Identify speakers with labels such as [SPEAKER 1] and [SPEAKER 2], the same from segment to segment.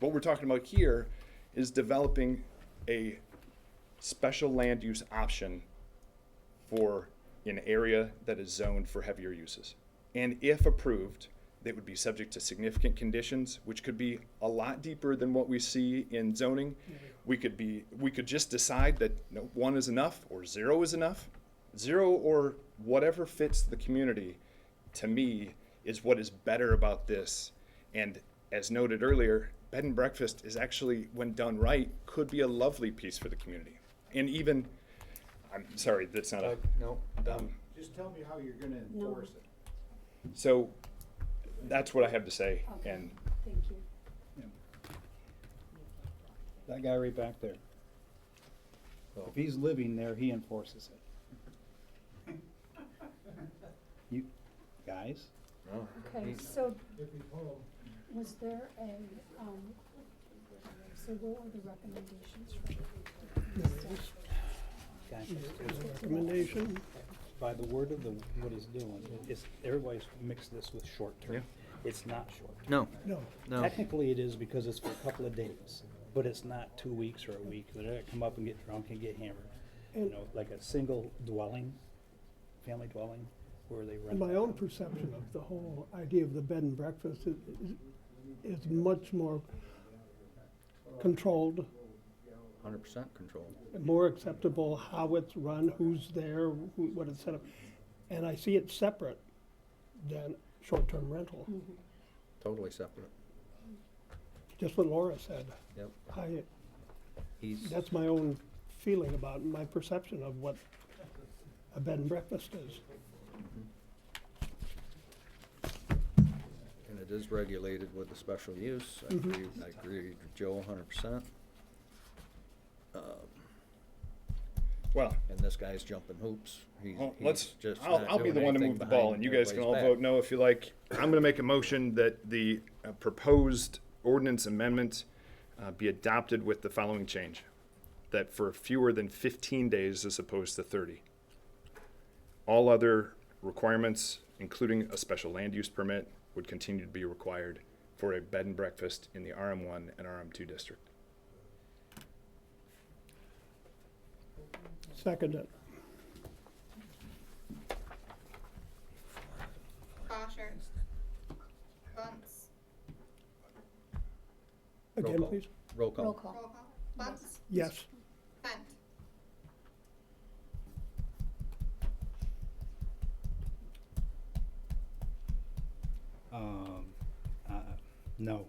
[SPEAKER 1] What we're talking about here is developing a special land use option for an area that is zoned for heavier uses. And if approved, they would be subject to significant conditions, which could be a lot deeper than what we see in zoning. We could be, we could just decide that no, one is enough or zero is enough. Zero or whatever fits the community, to me, is what is better about this. And as noted earlier, bed and breakfast is actually, when done right, could be a lovely piece for the community. And even, I'm sorry, that's not a.
[SPEAKER 2] no,
[SPEAKER 1] Um,
[SPEAKER 2] Just tell me how you're gonna
[SPEAKER 3] No.
[SPEAKER 2] enforce it.
[SPEAKER 1] So that's what I have to say.
[SPEAKER 3] Okay.
[SPEAKER 1] And
[SPEAKER 3] Thank you.
[SPEAKER 4] That guy right back there. If he's living there, he enforces it. You, guys,
[SPEAKER 3] Okay, so was there a, um, so what were the recommendations from?
[SPEAKER 4] guys,
[SPEAKER 5] Recommendation?
[SPEAKER 4] by the word of the, what he's doing, it's, everybody's mixed this with short-term. It's not short-term.
[SPEAKER 6] No,
[SPEAKER 5] No.
[SPEAKER 6] no.
[SPEAKER 4] Technically, it is because it's for a couple of days, but it's not two weeks or a week. They're gonna come up and get drunk and get hammered. You know, like a single dwelling, family dwelling, where they rent.
[SPEAKER 5] And my own perception of the whole idea of the bed and breakfast is, is much more controlled,
[SPEAKER 6] Hundred percent control.
[SPEAKER 5] more acceptable, how it's run, who's there, who, what it's set up. And I see it separate than short-term rental,
[SPEAKER 6] Totally separate.
[SPEAKER 5] just what Laura said.
[SPEAKER 6] Yep.
[SPEAKER 5] I,
[SPEAKER 6] He's
[SPEAKER 5] that's my own feeling about, my perception of what a bed and breakfast is.
[SPEAKER 6] and it is regulated with the special use. I agree. I agree with Joe hundred percent.
[SPEAKER 1] well,
[SPEAKER 6] And this guy's jumping hoops. He's,
[SPEAKER 1] well,
[SPEAKER 6] he's
[SPEAKER 1] let's,
[SPEAKER 6] just
[SPEAKER 1] I'll,
[SPEAKER 6] not
[SPEAKER 1] I'll be
[SPEAKER 6] doing
[SPEAKER 1] the one to
[SPEAKER 6] anything
[SPEAKER 1] move the ball
[SPEAKER 6] behind
[SPEAKER 1] and you guys can all
[SPEAKER 6] everybody's
[SPEAKER 1] vote
[SPEAKER 6] back.
[SPEAKER 1] no if you like. I'm going to make a motion that the uh, proposed ordinance amendment uh, be adopted with the following change. That for fewer than 15 days as opposed to 30. All other requirements, including a special land use permit, would continue to be required for a bed and breakfast in the RM1 and RM2 district.
[SPEAKER 5] Second it.
[SPEAKER 7] Bosher. Bunce.
[SPEAKER 6] Roll
[SPEAKER 5] Again,
[SPEAKER 6] call.
[SPEAKER 5] please?
[SPEAKER 6] Roll
[SPEAKER 3] Roll
[SPEAKER 6] call.
[SPEAKER 7] Roll
[SPEAKER 3] call.
[SPEAKER 7] call. Bunce.
[SPEAKER 5] Yes.
[SPEAKER 7] Hunt.
[SPEAKER 4] Um, uh, no.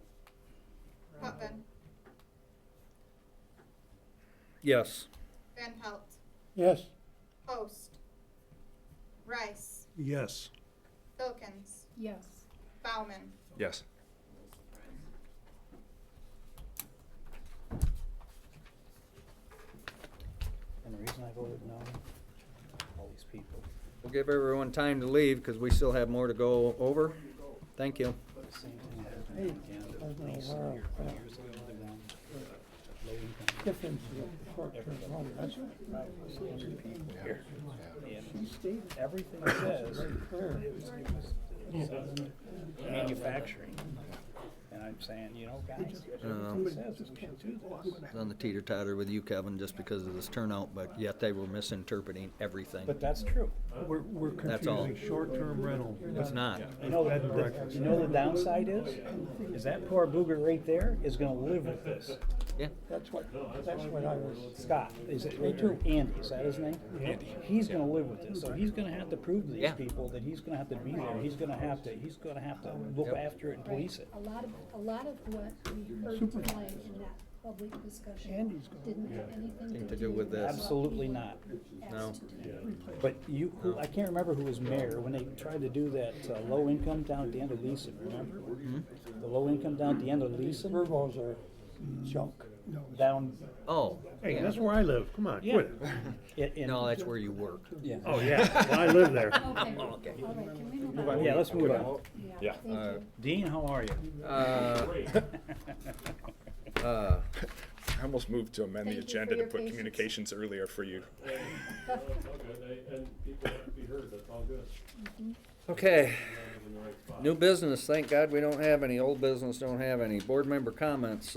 [SPEAKER 7] Putnam.
[SPEAKER 6] Yes.
[SPEAKER 7] Van Pelt.
[SPEAKER 5] Yes.
[SPEAKER 7] Post. Rice.
[SPEAKER 5] Yes.
[SPEAKER 7] Filkins.
[SPEAKER 3] Yes,
[SPEAKER 7] Bauman.
[SPEAKER 1] Yes.
[SPEAKER 4] And the reason I voted no, all these people.
[SPEAKER 6] We'll give everyone time to leave because we still have more to go over. Thank you.
[SPEAKER 4] The same thing happened again with Lisa here a few years ago, the one, uh, low income.
[SPEAKER 5] Difference of short-term rental. That's right.
[SPEAKER 4] And Everything says, it was, it was- it says manufacturing. And I'm saying, you know, guys, everything says we can't do this.
[SPEAKER 6] I was On the teeter totter with you, Kevin, just because of this turnout, but yet they were misinterpreting everything.
[SPEAKER 4] But that's true.
[SPEAKER 8] We're, we're
[SPEAKER 6] That's all.
[SPEAKER 8] confusing short-term rental.
[SPEAKER 5] uh,
[SPEAKER 6] It's not.
[SPEAKER 4] You know, the- the, you know the downside is, is that poor booger right there is gonna live with this.
[SPEAKER 6] Yeah.
[SPEAKER 5] That's what, that's what I was.
[SPEAKER 4] Scott, is it, Andy, is that his name? Andy. He's gonna live with this, so he's gonna have to prove to these
[SPEAKER 6] Yeah.
[SPEAKER 4] people that he's gonna have to be there, he's gonna have to, he's gonna have to look after it and police it.
[SPEAKER 3] a lot of, a lot of what we heard tonight in that public discussion didn't have anything to do with
[SPEAKER 6] this.
[SPEAKER 3] what we
[SPEAKER 4] Absolutely not.
[SPEAKER 3] asked
[SPEAKER 6] No.
[SPEAKER 3] to do.
[SPEAKER 4] But you, who, I can't remember who was mayor, when they tried to do that, uh, low income down at the end of Leeson, remember?
[SPEAKER 6] Mm-hmm.
[SPEAKER 4] The low income down at the end of Leeson,
[SPEAKER 5] Verbals are junk.
[SPEAKER 4] down,
[SPEAKER 6] Oh,
[SPEAKER 8] Hey, that's where I live, come on,
[SPEAKER 4] yeah.
[SPEAKER 8] quit it.
[SPEAKER 4] In- in-
[SPEAKER 6] no, that's where you work.
[SPEAKER 4] Yeah,
[SPEAKER 8] Oh, yeah, I live there.
[SPEAKER 3] Okay, all right, can we move on?
[SPEAKER 4] yeah, let's move on.
[SPEAKER 1] Yeah.
[SPEAKER 3] Thank you.
[SPEAKER 4] Dean, how are you?
[SPEAKER 6] Uh, uh,
[SPEAKER 1] I almost moved to amend the
[SPEAKER 3] Thank you for
[SPEAKER 1] agenda to
[SPEAKER 3] your
[SPEAKER 1] put
[SPEAKER 3] patience.
[SPEAKER 1] communications earlier for you.
[SPEAKER 9] And people have to be heard, that's all good. Not in
[SPEAKER 6] Okay,
[SPEAKER 9] the right spot.
[SPEAKER 6] new business, thank God we don't have any, old business don't have any. Board member comments,